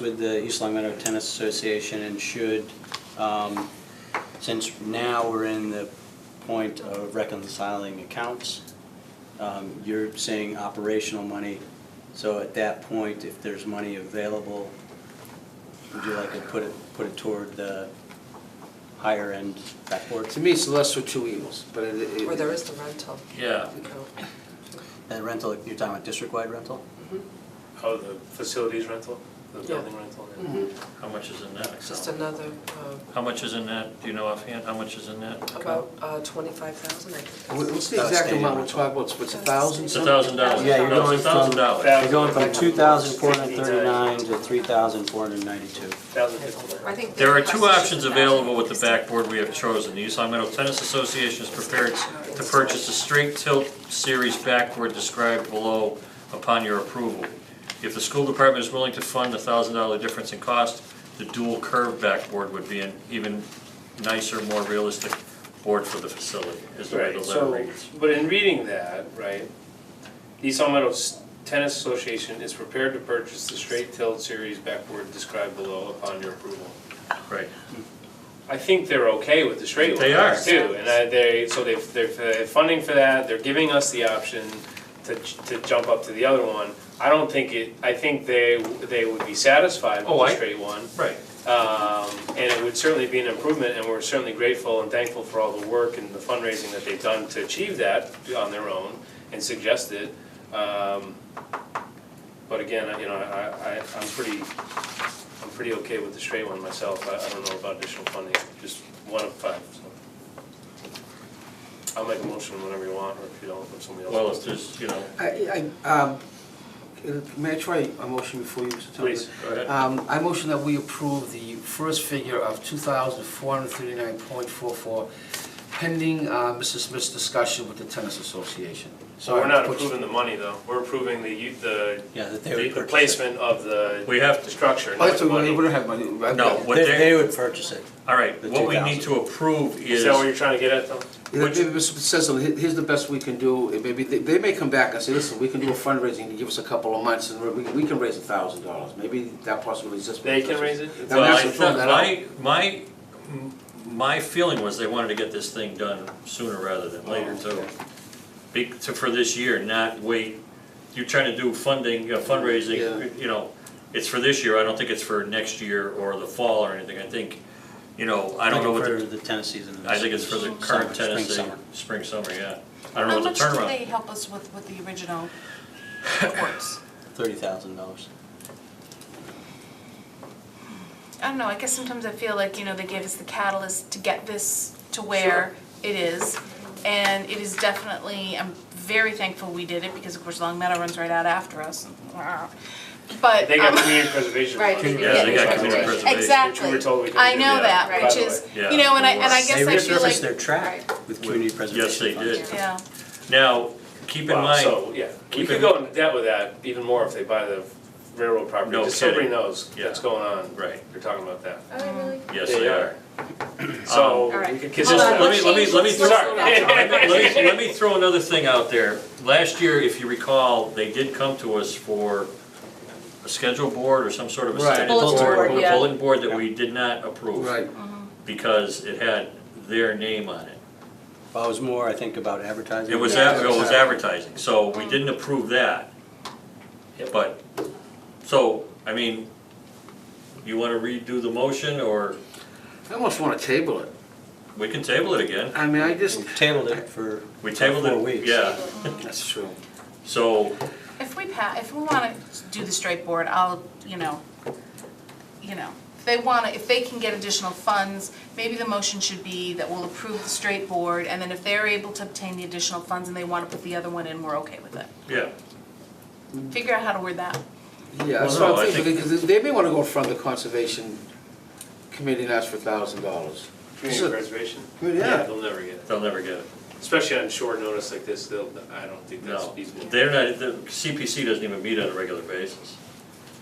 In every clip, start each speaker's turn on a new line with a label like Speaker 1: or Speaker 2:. Speaker 1: with the East Long Meadow Tennis Association and should, um, since now we're in the point of reconciling accounts, um, you're saying operational money, so at that point, if there's money available, would you like to put it, put it toward the higher end backboard?
Speaker 2: To me, it's the lesser of two evils, but it, it.
Speaker 3: Or there is the rental.
Speaker 4: Yeah,
Speaker 3: We don't-
Speaker 1: That rental, you're talking about district-wide rental?
Speaker 5: Oh, the facilities rental, the
Speaker 3: Yeah.
Speaker 5: building rental? yeah.
Speaker 4: how much is in that account?
Speaker 3: Just another, um,
Speaker 4: How much is in that, do you know offhand, how much is in that? account?
Speaker 3: about uh, 25,000, I think.
Speaker 2: What-
Speaker 3: that's-
Speaker 2: What's the exact
Speaker 1: Outstanding.
Speaker 2: amount we're talking about, it's a
Speaker 3: That's
Speaker 2: thousand
Speaker 4: It's a
Speaker 3: outstanding.
Speaker 2: something?
Speaker 4: thousand dollars.
Speaker 3: Yeah, you're
Speaker 4: No,
Speaker 1: going
Speaker 4: it's a thousand
Speaker 1: from-
Speaker 4: dollars.
Speaker 1: You're going from two thousand four hundred thirty-nine to three thousand four hundred ninety-two.
Speaker 5: Thousand fifty-nine.
Speaker 3: I think.
Speaker 4: There are
Speaker 3: the
Speaker 4: two
Speaker 3: price is
Speaker 4: options
Speaker 3: 1,000.
Speaker 4: available with the backboard we have chosen. The East Long Meadow Tennis Association is prepared to purchase a straight tilt series backboard described below upon your approval. If the school department is willing to fund the thousand dollar difference in cost, the dual curve backboard would be an even nicer, more realistic board for the facility, is the way the
Speaker 5: Right,
Speaker 4: letter
Speaker 5: so,
Speaker 4: reads.
Speaker 5: but in reading that, right, the East Long Meadow S- Tennis Association is prepared to purchase the straight tilt series backboard described below upon your approval.
Speaker 4: Right,
Speaker 5: I think they're okay with the straight
Speaker 4: They
Speaker 5: ones
Speaker 4: are.
Speaker 5: too, and I, they, so they've, they're, they're funding for that, they're giving us the option to, j- to jump up to the other one. I don't think it, I think they, they would be satisfied with
Speaker 4: Oh,
Speaker 5: the
Speaker 4: I-
Speaker 5: straight one.
Speaker 4: right.
Speaker 5: Um, and it would certainly be an improvement, and we're certainly grateful and thankful for all the work and the fundraising that they've done to achieve that on their own and suggested. Um, but again, you know, I, I, I'm pretty, I'm pretty okay with the straight one myself, I, I don't know about additional funding, just one of five, so. I'll make a motion whenever you want, or if you don't, if somebody else
Speaker 4: Well,
Speaker 5: wants
Speaker 4: if
Speaker 5: to.
Speaker 4: there's, you know,
Speaker 2: I, I, um, may I try a motion before you, Mr. Tucker?
Speaker 5: Please,
Speaker 4: go ahead.
Speaker 2: Um, I motion that we approve the first figure of two thousand four hundred thirty-nine point four-four pending, uh, Mr. Smith's discussion with the tennis association.
Speaker 5: So we're not
Speaker 2: Which-
Speaker 5: approving the money, though, we're approving the, u- the,
Speaker 1: Yeah, that they
Speaker 5: the
Speaker 1: would
Speaker 5: the
Speaker 1: purchase. it.
Speaker 5: placement of the
Speaker 4: We have to-
Speaker 5: structure,
Speaker 2: Oh,
Speaker 5: not
Speaker 2: that's,
Speaker 5: the money.
Speaker 2: we don't have money. right?
Speaker 4: No, what
Speaker 1: They, they
Speaker 4: they,
Speaker 1: would purchase it.
Speaker 4: all right,
Speaker 1: the
Speaker 4: what we
Speaker 1: 2,000.
Speaker 4: need to approve
Speaker 5: Is
Speaker 4: is,
Speaker 5: that what you're trying to get at, though?
Speaker 2: Yeah, Maybe Mr. Cecil, he- here's the best we can do, and maybe, they, they may come back and say, listen, we can do a fundraising, to give us a couple of months, and we, we can raise a thousand dollars, maybe that possibility exists.
Speaker 5: They can raise it?
Speaker 2: Now,
Speaker 4: well,
Speaker 2: that's
Speaker 4: I
Speaker 2: the thing,
Speaker 4: thought,
Speaker 2: that
Speaker 4: my, my, m- my feeling was they wanted to get this thing done sooner rather than later, too. Be, to, for this year, not wait, you're trying to do funding, uh,
Speaker 2: Yeah.
Speaker 4: fundraising, you know, it's for this year, I don't think it's for next year or the fall or anything, I think, you know, I don't know what
Speaker 1: For
Speaker 4: the,
Speaker 1: the tennis season.
Speaker 4: I think it's for the
Speaker 1: Summer,
Speaker 4: current
Speaker 1: spring,
Speaker 4: tennis,
Speaker 1: summer.
Speaker 4: spring, summer, yeah. I don't know what the
Speaker 6: How much
Speaker 4: turnaround.
Speaker 6: did they help us with, with the original courts?
Speaker 1: Thirty thousand dollars.
Speaker 6: I don't know, I guess sometimes I feel like, you know, they gave us the catalyst to get this to where it is. And it is definitely, I'm very thankful we did it, because of course Long Meadow runs right out after us. But.
Speaker 5: They got
Speaker 6: um,
Speaker 5: community preservation.
Speaker 3: Right.
Speaker 5: funds,
Speaker 4: Yeah, they got
Speaker 5: Right.
Speaker 4: community
Speaker 5: Right.
Speaker 4: preservation.
Speaker 6: Exactly.
Speaker 5: Which we were told we couldn't
Speaker 6: I
Speaker 5: do.
Speaker 6: know
Speaker 4: Yeah,
Speaker 6: that,
Speaker 3: by
Speaker 6: which
Speaker 5: the
Speaker 6: is,
Speaker 4: way.
Speaker 6: you know, and I, and I
Speaker 4: Yeah.
Speaker 6: guess I feel like,
Speaker 1: They resurfaced their track with community preservation.
Speaker 4: Yes, they
Speaker 1: funds.
Speaker 4: did.
Speaker 6: yeah,
Speaker 4: Now, keep in
Speaker 5: Wow,
Speaker 4: mind,
Speaker 5: So, yeah, we
Speaker 4: keep
Speaker 5: could
Speaker 4: in-
Speaker 5: go into debt with that even more if they buy the railroad property,
Speaker 4: No
Speaker 5: just so everybody
Speaker 4: kidding.
Speaker 5: knows
Speaker 4: Yeah.
Speaker 5: what's going on.
Speaker 4: Right.
Speaker 5: You're talking about that.
Speaker 7: Are they really?
Speaker 4: yes, they are. Um,
Speaker 5: So,
Speaker 7: All right.
Speaker 5: we could kiss
Speaker 4: Just,
Speaker 7: Hold
Speaker 5: that.
Speaker 7: on,
Speaker 4: let me, let me, let me,
Speaker 7: let's
Speaker 4: throw-
Speaker 7: go back.
Speaker 4: let me- let me- let me throw another thing out there. Last year, if you recall, they did come to us for a schedule board or some sort of a
Speaker 2: Right.
Speaker 4: standing
Speaker 7: Bulletin
Speaker 4: board.
Speaker 7: board,
Speaker 4: a
Speaker 7: yeah.
Speaker 4: Bulletin board that we did not approve.
Speaker 2: Right,
Speaker 4: Because it had their name on it.
Speaker 1: Well, it was more, I think, about advertising.
Speaker 4: It was, ad- it was advertising, so we didn't approve that. But, so, I mean, you wanna redo the motion, or
Speaker 2: I almost wanna table it,
Speaker 4: we can table it again?
Speaker 2: I mean, I just,
Speaker 1: We Tabled it for.
Speaker 4: We tabled
Speaker 1: Four
Speaker 4: it,
Speaker 1: weeks.
Speaker 4: yeah,
Speaker 2: that's true.
Speaker 4: so,
Speaker 6: if we pa, if we wanna do the straight board, I'll, you know, you know, if they wanna, if they can get additional funds, maybe the motion should be that we'll approve the straight board, and then if they're able to obtain the additional funds and they wanna put the other one in, we're okay with it.
Speaker 4: yeah,
Speaker 6: Figure out how to word that.
Speaker 2: Yeah, that's
Speaker 4: Well,
Speaker 2: what
Speaker 4: no, I
Speaker 2: I'm thinking,
Speaker 4: think-
Speaker 2: because they may wanna go in front of the conservation committee and ask for a thousand dollars.
Speaker 5: Community preservation?
Speaker 2: Yeah.
Speaker 5: They'll never get it,
Speaker 4: they'll never get it,
Speaker 5: especially on short notice like this, they'll, I don't think that's
Speaker 4: no.
Speaker 5: feasible.
Speaker 4: They're not, the CPC doesn't even meet on a regular basis.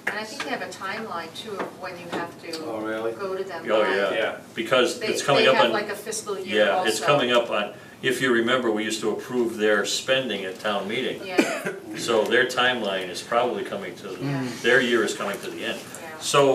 Speaker 7: And I think they have a timeline too of when you have to
Speaker 2: Oh, really?
Speaker 7: go to them.
Speaker 4: Oh,
Speaker 7: by.
Speaker 4: yeah.
Speaker 5: Yeah.
Speaker 4: Because
Speaker 7: They,
Speaker 4: it's coming
Speaker 7: they
Speaker 4: up
Speaker 7: have
Speaker 4: on,
Speaker 7: like a fiscal year
Speaker 4: yeah,
Speaker 7: also.
Speaker 4: it's coming up on, if you remember, we used to approve their spending at town meeting.
Speaker 7: Yeah,
Speaker 4: So their timeline is probably coming to,
Speaker 7: Yeah.
Speaker 4: their year is coming to the end.
Speaker 7: yeah.
Speaker 4: So